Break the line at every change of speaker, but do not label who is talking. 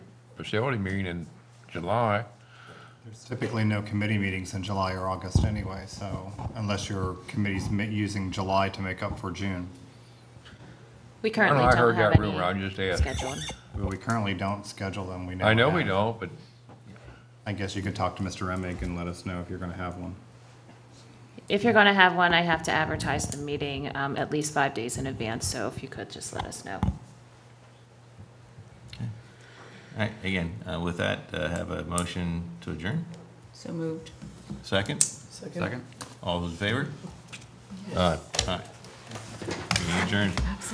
facility meeting in July.
There's typically no committee meetings in July or August anyway, so unless your committee's ma- using July to make up for June.
We
I don't
currently
know, I
don't
heard
have
that rumor, I
any
just asked.
scheduled.
But we currently don't schedule them, we know.
I know we
that.
don't, but
I guess you could talk to Mr. Emig and let us know if you're gonna have one.
If you're going to have one, I have to advertise the meeting um, at least five days in advance, so if you could just let us know.
All right, again, uh, with that, uh, have a motion to adjourn.
So moved.
Second,
Second?
all those in favor? Aye. Aye. Uh, Meeting adjourned.